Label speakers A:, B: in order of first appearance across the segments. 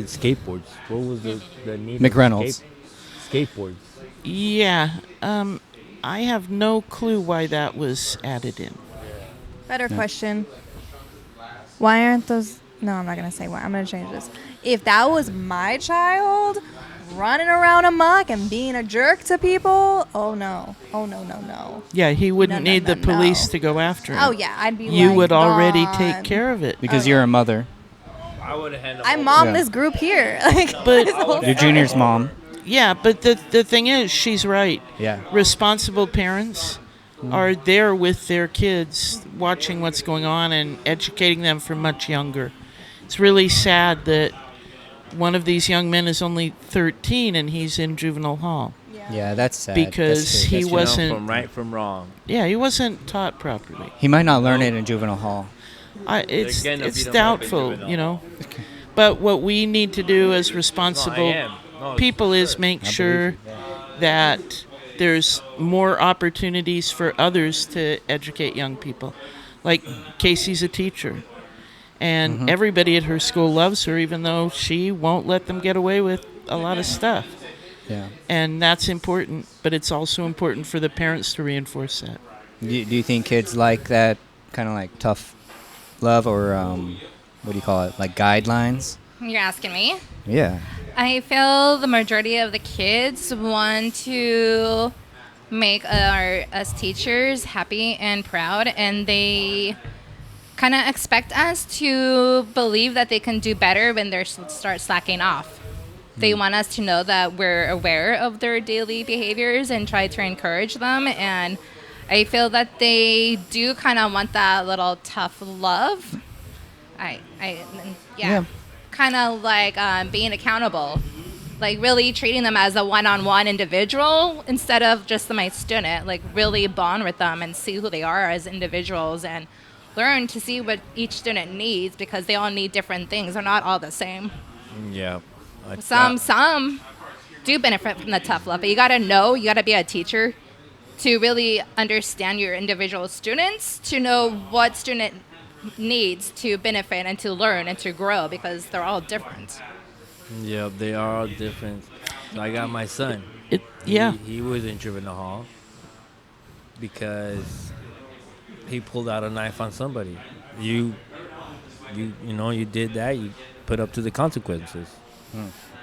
A: did skateboards. What was the, the need? for
B: McReynolds.
A: skate- skateboards.
C: Yeah. Um, I have no clue why that was added in.
D: Better question. Why aren't those? No, I'm not gonna say why. I'm gonna change this. If that was my child running around amok and being a jerk to people, oh no, oh no, no, no.
C: Yeah, he wouldn't
D: No, no,
C: need
D: no,
C: the police
D: no.
C: to go after him.
D: Oh yeah, I'd be.
C: You
D: like,
C: would already
D: "Gone."
C: take care of it.
B: because you're a mother.
A: I would have handled.
D: I mom
B: Yeah.
D: this group here. Like,
C: But-
D: this whole
B: Your junior's mom.
C: Yeah, but the the thing is, she's right.
B: Yeah.
C: Responsible parents
B: Hmm.
C: are there with their kids, watching what's going on and educating them from much younger. It's really sad that one of these young men is only 13 and he's in juvenile hall.
B: Yeah, that's sad.
C: Because
B: That's true.
C: he
B: That's true.
C: was- wasn't-
A: from right from wrong.
C: Yeah, he wasn't taught properly.
B: He might not learn it in juvenile hall.
C: I, it's
A: gonna
C: it's
A: beat 'em up in
C: doubtful,
A: juvenile
C: you know. But what we need to do as
A: No, Oh, I
C: responsible
A: am. No, it's
C: people
A: for
C: is
A: sure.
C: make sure that there's more opportunities for others to educate young people. Like Casey's a teacher, and everybody at her school loves her, even though she won't let them get away with a lot of stuff.
B: Yeah.
C: And that's important, but it's also important for the parents to reinforce that.
B: Do you, do you think kids like that kind of like tough love or um, what do you call it? Like guidelines?
E: You're asking me?
B: Yeah.
E: I feel the majority of the kids want to make our us teachers happy and proud, and they kind of expect us to believe that they can do better when they start slacking off. They
A: Hmm.
E: want us to know that we're aware of their daily behaviors and try to encourage them. And I feel that they do kind of want that little tough love. I, I, yeah,
B: Yeah.
E: kind of like um, being accountable, like really treating them as a one-on-one individual instead of just my student. Like really bond with them and see who they are as individuals and learn to see what each student needs because they all need different things. They're not all the same.
A: Yeah. I-
E: Some
A: that-
E: some do benefit from the tough love, but you gotta know, you gotta be a teacher to really understand your individual students, to know what student needs to benefit and to learn and to grow because they're all different.
A: Yeah, they are all different. So I got my son.
C: It, yeah.
A: He, he was in juvenile hall because he pulled out a knife on somebody. You, you, you know, you did that. You put up to the consequences,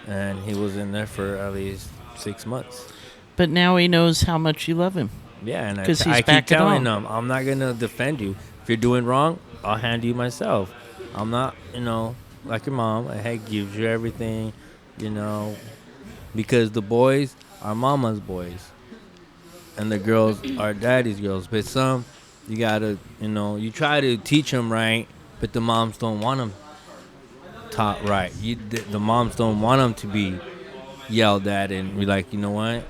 A: and he was in there for at least six months.
C: But now he knows how much you love him.
A: Yeah, and I,
C: 'Cause he's
A: I keep
C: back at
A: telling
C: home.
A: them, I'm not gonna defend you. If you're doing wrong, I'll handle you myself. I'm not, you know, like your mom. I had gives you everything, you know, because the boys are mama's boys, and the girls are daddy's girls. But some, you gotta, you know, you try to teach them right, but the moms don't want them taught right. You, the, the moms don't want them to be yelled at and be like, you know what?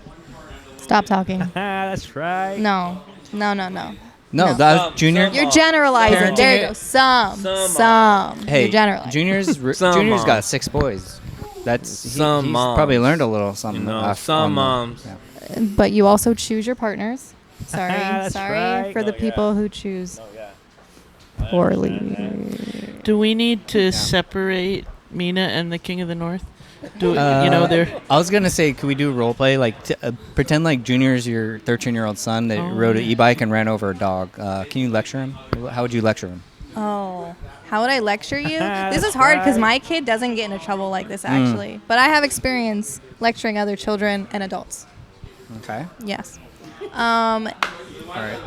D: Stop talking.
A: Ah, that's right.
D: No, no, no, no.
B: No,
D: No.
B: that
A: Some-
B: junior.
A: some-
D: You're generalizing.
B: Parenting
D: There
B: it-
D: you go. Some,
A: Some
D: some.
B: hey,
D: You're generalizing.
B: junior's re-
A: Some
B: junior's
A: mom.
B: got six boys. That's he,
A: Some
B: he's
A: moms.
B: probably learned a little something.
A: You know,
B: off-
A: some
B: on the-
A: moms.
B: yeah.
D: but you also choose your partners. Sorry,
A: That's
D: sorry
A: right.
D: for the
A: Oh, yeah.
D: people who choose poorly.
C: Do we need to separate Mina and the King of the North? Do you know
B: Uh,
C: they're
B: I was gonna say, could we do role play? Like, t- uh, pretend like Junior's your 13 year old son that
C: Oh,
B: rode an
C: yeah.
B: e bike and ran over a dog. Uh, can you lecture him? How would you lecture him?
D: Oh, how would I lecture you? this is hard because my kid doesn't get into trouble like this actually, but I have experience lecturing other children and adults.
B: Okay.
D: Yes. Um,
B: All right.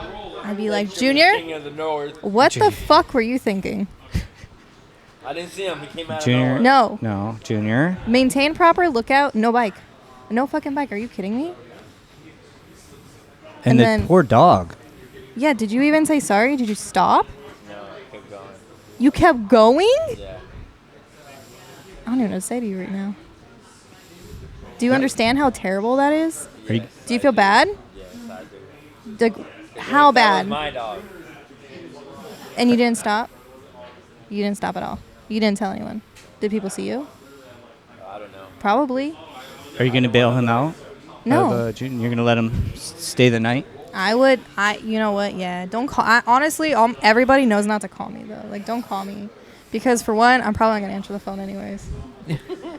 D: I'd be like, Junior,
A: King of the North.
D: what
B: Junior.
D: the fuck were you thinking?
A: I didn't see him. He came out
B: Junior.
A: of nowhere.
D: No,
B: No, Junior.
D: maintain proper lookout. No bike. No fucking bike. Are you kidding me?
B: And,
D: And
B: the
D: then-
B: poor dog.
D: Yeah. Did you even say sorry? Did you stop?
A: No, he kept going.
D: You kept going.
A: Yeah.
D: I don't even know what to say to you right now. Do you understand how terrible that is?
B: Are you,
D: Do you feel bad?
A: Yes, I do.
D: Like, how
A: That was
D: bad?
A: my dog.
D: And you didn't stop? You didn't stop at all. You didn't tell anyone. Did people see you?
A: I don't know.
D: Probably.
B: are you gonna bail him out? Of,
D: No.
B: uh, junior, you're gonna let him s- stay the night.
D: I would. I. You know what? Yeah. Don't call. I, honestly, um, everybody knows not to call me though. Like, don't call me Because for one, I'm probably not gonna answer the phone anyways.